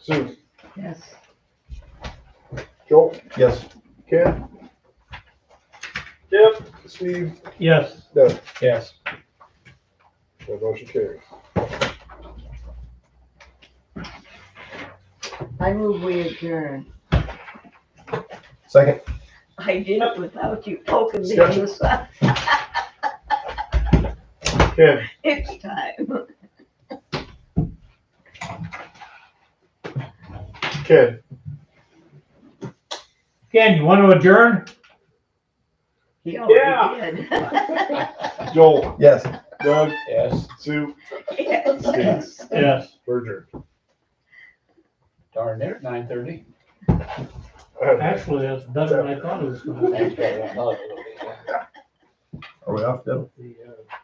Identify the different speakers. Speaker 1: Sue,
Speaker 2: Yes.
Speaker 1: Joel,
Speaker 3: Yes.
Speaker 1: Ken,
Speaker 4: Yep.
Speaker 1: Steve,
Speaker 4: Yes.
Speaker 1: Doug.
Speaker 3: Yes.
Speaker 1: That motion carries.
Speaker 2: I move we adjourn.
Speaker 3: Second?
Speaker 2: I did it without you poking me on the side.
Speaker 1: Ken,
Speaker 2: It's time.
Speaker 1: Ken,
Speaker 4: Ken, you want to adjourn?
Speaker 2: He
Speaker 4: Yeah.
Speaker 2: already did.
Speaker 1: Joel,
Speaker 3: Yes.
Speaker 1: Doug,
Speaker 3: Yes.
Speaker 1: Sue,
Speaker 2: Yes.
Speaker 4: Yes.
Speaker 1: Berger.
Speaker 5: Darn near nine thirty.
Speaker 4: Actually, that's better than I thought it was. gonna be.
Speaker 5: That's probably another little bit.
Speaker 3: Are we off, Deb?
Speaker 4: The, uh,